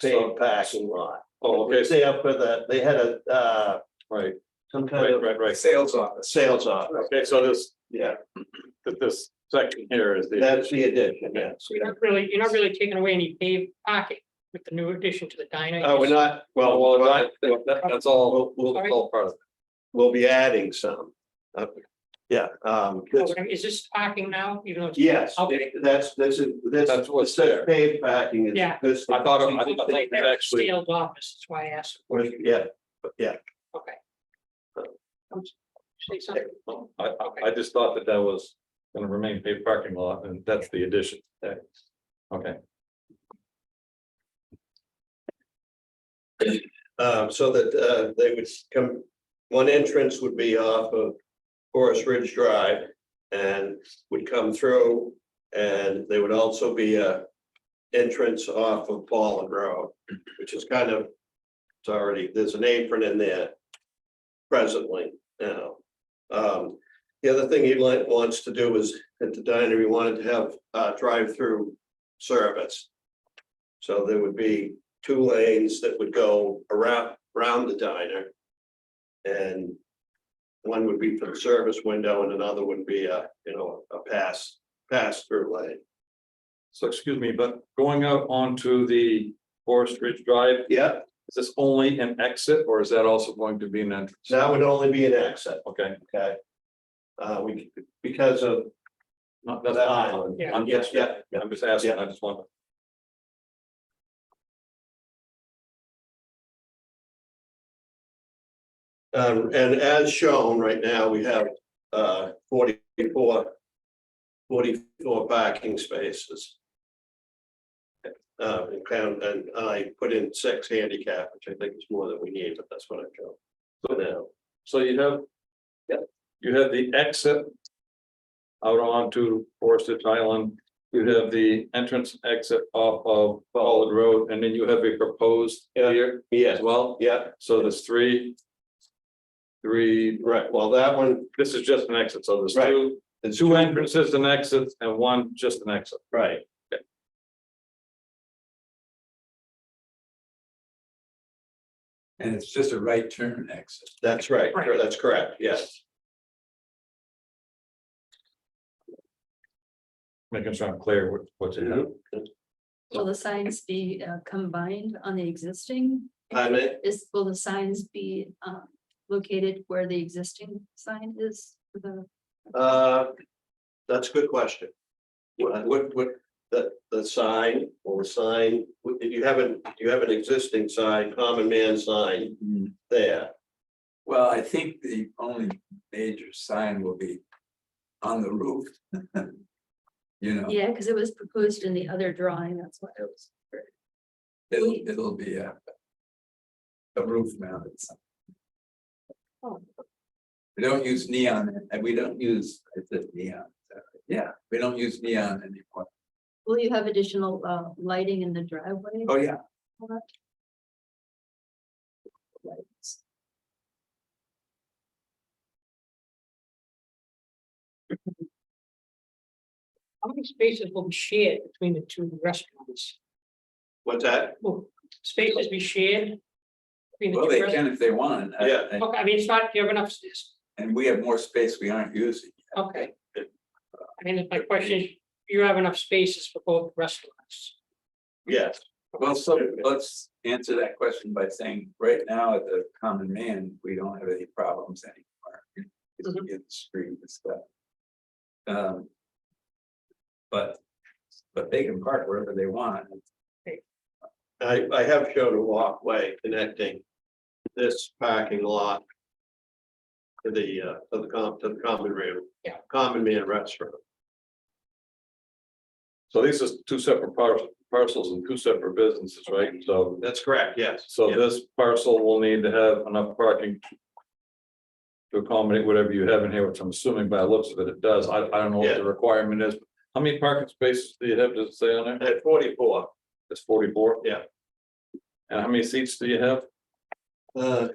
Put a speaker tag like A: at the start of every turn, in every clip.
A: paved parking lot.
B: Oh, okay,
A: It's there for the, they had a, uh,
B: right,
A: some kind
B: right,
A: of
B: right, right.
C: Sales office.
A: sales office.
B: Okay, so this,
A: Yeah,
B: that this section here is the,
A: that's the addition, yes.
D: So you're not really, you're not really taking away any paved parking with the new addition to the diner.
A: Uh, we're not,
B: Oh, well,
A: well,
B: well, that, that- that's all,
A: we'll, we'll,
B: that's all part of it.
A: we'll be adding some. Uh, Yeah, um, this-
D: Is this parking now, even though? it's-
A: yes,
D: Okay.
A: that's, this is, this.
B: That's what's
A: this
B: there.
A: Paved parking is.
D: Yeah.
A: this-
B: I thought, I think, I think
D: Like
B: it's
D: that
B: actually,
D: Sealed office, that's why I asked,
A: Yeah, yeah.
D: okay. Say something,
B: I, I- I just thought that that was gonna remain paved parking lot, and that's the addition. Okay,
A: Um, so that, uh, they would come, one entrance would be off of Forest Ridge Drive and would come through, and there would also be a entrance off of Ballin Road, which is kind of, it's already, there's an apron in there presently now. Um, the other thing he like wants to do is, at the diner, he wanted to have, uh, drive-through service. So there would be two lanes that would go around, around the diner. And one would be for the service window and another would be a, you know, a pass, pass through lane.
B: so excuse me, but going out onto the Forest Ridge Drive,
A: Yep,
B: is this only an exit, or is that also going to be an entrance?
A: that would only be an exit,
B: Okay,
A: okay? Uh, we, because of,
B: not, that's,
A: That-
B: fine.
D: Yeah.
B: I'm just, yeah,
A: Yeah, yeah.
B: I'm just asking, I just want.
A: um, and as shown right now, we have, uh, forty-four. Forty-four parking spaces. Uh, and count, and I put in six handicap, which I think is more than we need, but that's what I go. So now.
B: So you have. You have the exit. Out onto Forested Island, you have the entrance exit off of Ballard Road, and then you have a proposed
A: Yeah.
B: here as
A: Yes,
B: well,
A: yeah,
B: so there's three. Three,
A: right, well, that one,
B: this is just an exit, so there's
A: Right.
B: two,
A: There's
B: two entrances and exits and one just an exit.
A: right,
C: And it's just a right turn exit.
A: that's right,
D: Right.
A: that's correct, yes,
B: Making sure I'm clear what, what you have.
A: Mhm.
E: Will the signs be uh, combined on the existing?
A: I mean,
E: Is, will the signs be um, located where the existing sign is? for the-
A: uh, that's a good question. What, what, what, the, the sign, or the sign, if you haven't, you have an existing sign, common man sign there,
C: Well, I think the only major sign will be on the roof. You know,
E: Yeah, because it was proposed in the other drawing, that's why it was.
C: it'll,
E: we-
C: it'll be a. A roof mounted sign.
E: Oh.
C: We don't use neon, and we don't use, I said neon, uh, yeah, we don't use neon anymore.
E: Will you have additional uh, lighting in the driveway?
C: Oh, yeah,
E: Lights.
D: how many spaces will be shared between the two restaurants?
A: what's that?
D: Will spaces be shared? between the
C: well,
D: two
C: they
D: restaurants?
C: can if they want. I-
A: Yeah.
C: I-
D: Okay, I mean, it's not, you have enough space,
C: And we have more space we aren't using.
D: okay. I mean, my question is, you have enough spaces for both restaurants?
A: Yes,
C: Well, so let's answer that question by saying, right now, at the common man, we don't have any problems anymore. It's
D: Mhm.
C: in the street and stuff. Um. But, but they can park wherever they want.
A: I, I have shown a walkway connecting this parking lot. To the, uh, to the com, to the common room.
D: Yeah.
A: Common man restaurant,
B: So these is two separate par- parcels and two separate businesses, right? So
A: that's correct, yes.
B: So this parcel will need to have enough parking. To accommodate whatever you have in here, which I'm assuming by the looks of it, it does. I, I don't know what the requirement is. How many parking spaces do you have to say on it?
A: At forty-four,
B: It's forty-four?
A: Yeah.
B: And how many seats do you have?
A: uh.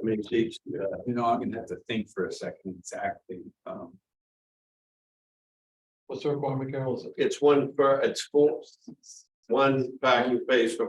A: I mean, seats, uh,
C: You know, I'm gonna have to think for a second exactly. Um,
B: What's the requirement, Carol? Is it
A: It's one, per- it's four, one parking space for